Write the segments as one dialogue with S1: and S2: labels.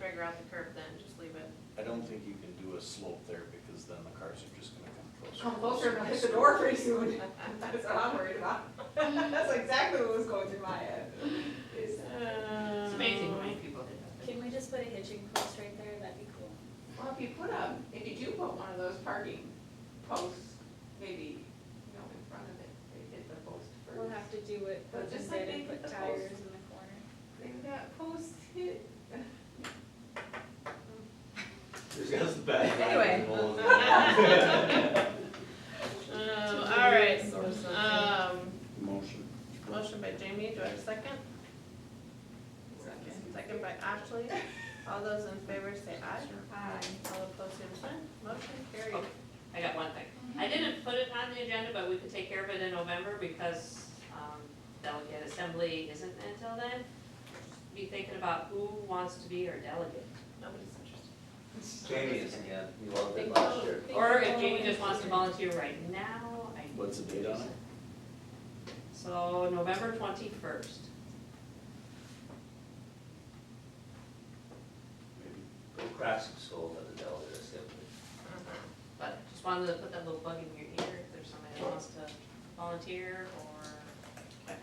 S1: figure out the curve then, just leave it.
S2: I don't think you can do a slope there because then the cars are just gonna come closer.
S3: Come closer and I'll hit the door pretty soon. That's what I'm worried about. That's exactly what was going through my head. uh, Is-
S1: It's
S4: people did
S5: Can we just put a hitching post right there? That'd be cool.
S3: Well, if you put a, if you do put one of those parking posts, maybe, you know, in front of it, they hit the post first.
S5: We'll have to do it,
S3: But
S5: put
S3: just
S5: just
S3: like
S5: in
S3: they
S5: and
S3: did
S5: put
S3: the post.
S5: tires in the corner.
S3: They've got posts hit.
S2: That's the bad.
S4: Anyway.
S1: Um, all right,
S5: Source of-
S1: um,
S2: Motion.
S1: motion by Jamie, do I have a second? Second. Second by Ashley, all those in favor say aye.
S3: Hi.
S1: All opposed, same sign, motion carried.
S4: Okay. I got one thing. I didn't put it on the agenda, but we could take care of it in November because um, delegate assembly isn't until then. Be thinking about who wants to be our delegate.
S1: Nobody's interested.
S6: Jamie is again, you loved
S5: Think
S6: it last
S5: about-
S6: year.
S5: think
S4: Or if
S5: about
S4: Jamie
S5: it.
S4: just wants to volunteer right now, I.
S2: What's the date on it?
S4: So November twenty-first.
S6: Maybe Go crash some skull at the Delta Assembly.
S4: But just wanted to put that little bug in your ear if there's somebody that wants to volunteer or that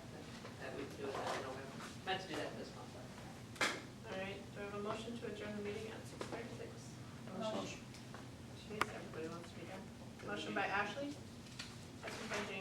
S4: that we can do it that in November. Meant to do that this month, but.
S1: All right, do I have a motion to adjourn the meeting at six thirty-six? Motion. Jeez, everybody wants to be done. Motion by Ashley, second by Jamie.